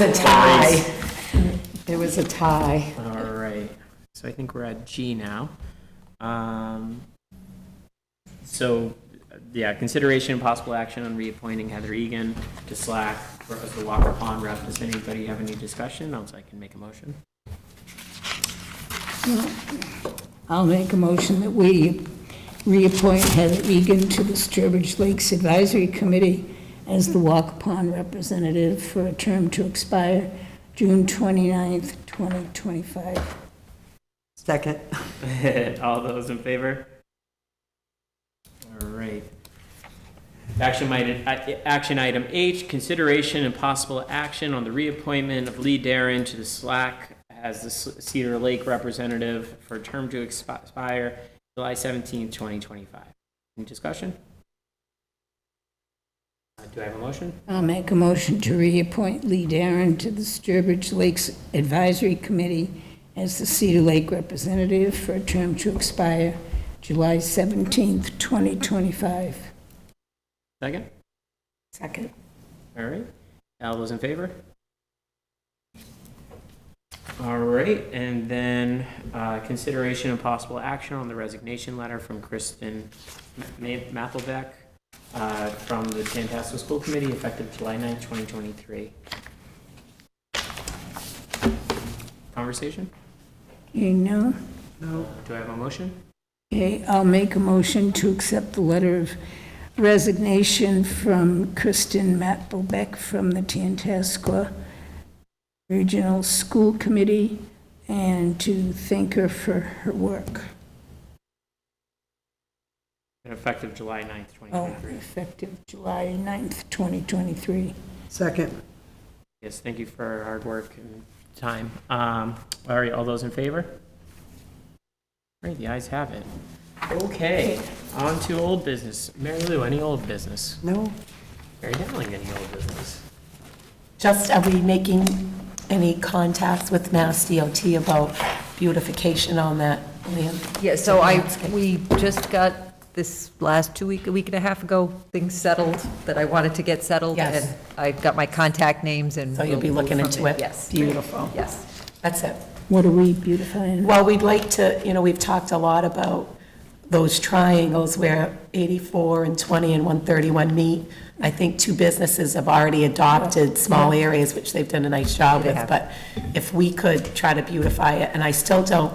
was a tie. It was a tie. All right, so I think we're at G now. Um, So, yeah, consideration and possible action on reappointing Heather Egan to Slack for- as the Walker Pond rep. Does anybody have any discussion? Else I can make a motion. I'll make a motion that we reappoint Heather Egan to the Sturbridge Lakes Advisory Committee as the Walk Pond representative for a term to expire June 29th, 2025. Second. All those in favor? All right. Action item, action item H, consideration and possible action on the reappointment of Lee Darren to the Slack as the S- Cedar Lake representative for a term to expi- expire July seventeenth, twenty twenty-five. Any discussion? Uh, Do I have a motion? I'll make a motion to reappoint Lee Darren to the Sturbridge Lakes Advisory Committee as the Cedar Lake representative for a term to expire July 17th, 2025. Second? Second. All right. All those in favor? All right, and then uh, consideration and possible action on the resignation letter from Kristen Ma- Ma- Mathelbeck uh, from the Tantasco School Committee effective July 9, 2023. Conversation? You know? No. Do I have a motion? Okay, I'll make a motion to accept the letter of resignation from Kristen Mattelbeck from the Tantascwa Regional School Committee and to thank her for her work. Effective July 9, Oh, 2023. effective July 9th, 2023. Second. Yes, thank you for your hard work and time. Um, All right, all those in favor? All right, the ayes have it. Okay, on to old business. Mary Lou, any old business? No? Mary Dowling, any old business? Just, are we making any contacts with Mass DOT about beautification on that land? Yeah, so I, we just got this last two week, a week and a half ago, things settled that I wanted to get settled. Yes. And I've got my contact names and. So you'll be we'll looking move into from there. it? Yes, Beautiful. yes. That's it. What are we beautifying? Well, we'd like to, you know, we've talked a lot about those triangles where 84 and 20 and 131 meet. I think two businesses have already adopted small areas, which they've done a nice job They with, have. but if we could try to beautify it, and I still don't,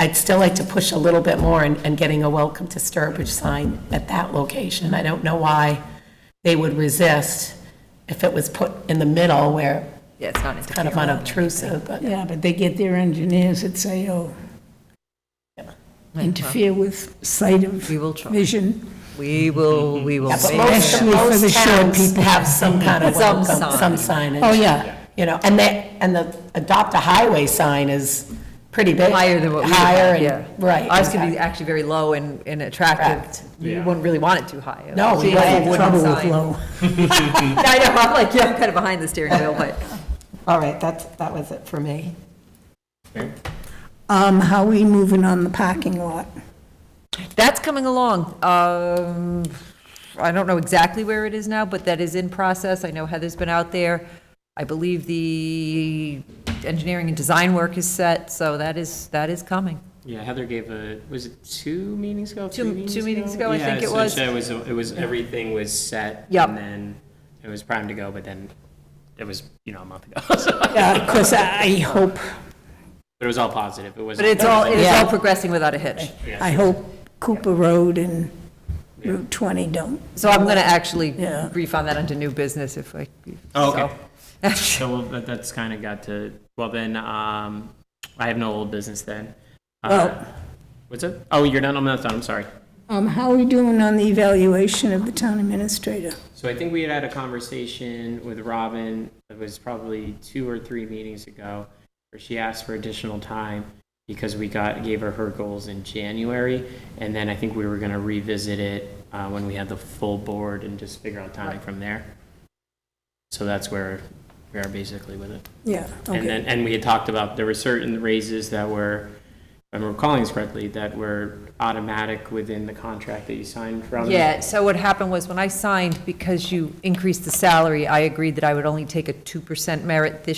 I'd still like to push a little bit more in and getting a welcome to Sturbridge sign at that location. I don't know why they would resist if it was put in the middle where Yeah, it's not it's kind of unobtrusive, but. Yeah, but they get their engineers at SAO, interfering. interfere with sight of We will try. vision. We will, we will. Yeah, but make most, Especially for the most short towns people. have some kind of Some welcome, some signage. Oh, yeah. You know, and they, and the adopt a highway sign is pretty big. Higher than what we would Higher have, and- yeah. Right. Ours could be exactly. actually very low and, and Correct. attractive. You Yeah. wouldn't really want it too high. No, we See, wouldn't. I have Trouble one with sign. I know, I'm like, yeah, I'm kind of behind the steering wheel, but. All right, that's, that was it for me. Mary? Um, how are we moving on the parking lot? That's coming along. Um, I don't know exactly where it is now, but that is in process. I know Heather's been out there. I believe the engineering and design work is set, so that is, that is coming. Yeah, Heather gave a, was it two meetings ago? Two- three two meetings ago, I think it was. Yeah, so- so it was, it was, everything was set. Yep. And then it was primed to go, but then it was, you know, a month ago, so- Yeah, because I hope, but it was all positive. It wasn't. But it's all, it is all Yeah. progressing without a hitch. I hope Cooper Road and Route 20 don't. So I'm going to actually Yeah. brief on that under new business if I. Oh, okay. so. So well, that, that's kind of got to, well then, um, I have no old business then. Uh, Well- What's it? Oh, you're done, I'm not done, I'm sorry. Um, how are we doing on the evaluation of the town administrator? So I think we had had a conversation with Robin, it was probably two or three meetings ago, where she asked for additional time because we got, gave her her goals in January, and then I think we were gonna revisit it, uh, when we had the full board and just figure out timing from there. So that's where we are basically with it. Yeah, And okay. then, and we had talked about, there were certain raises that were, if I'm recalling this correctly, that were automatic within the contract that you signed from. Yeah, so what happened was when I signed, because you increased the salary, I agreed that I would only take a 2% merit this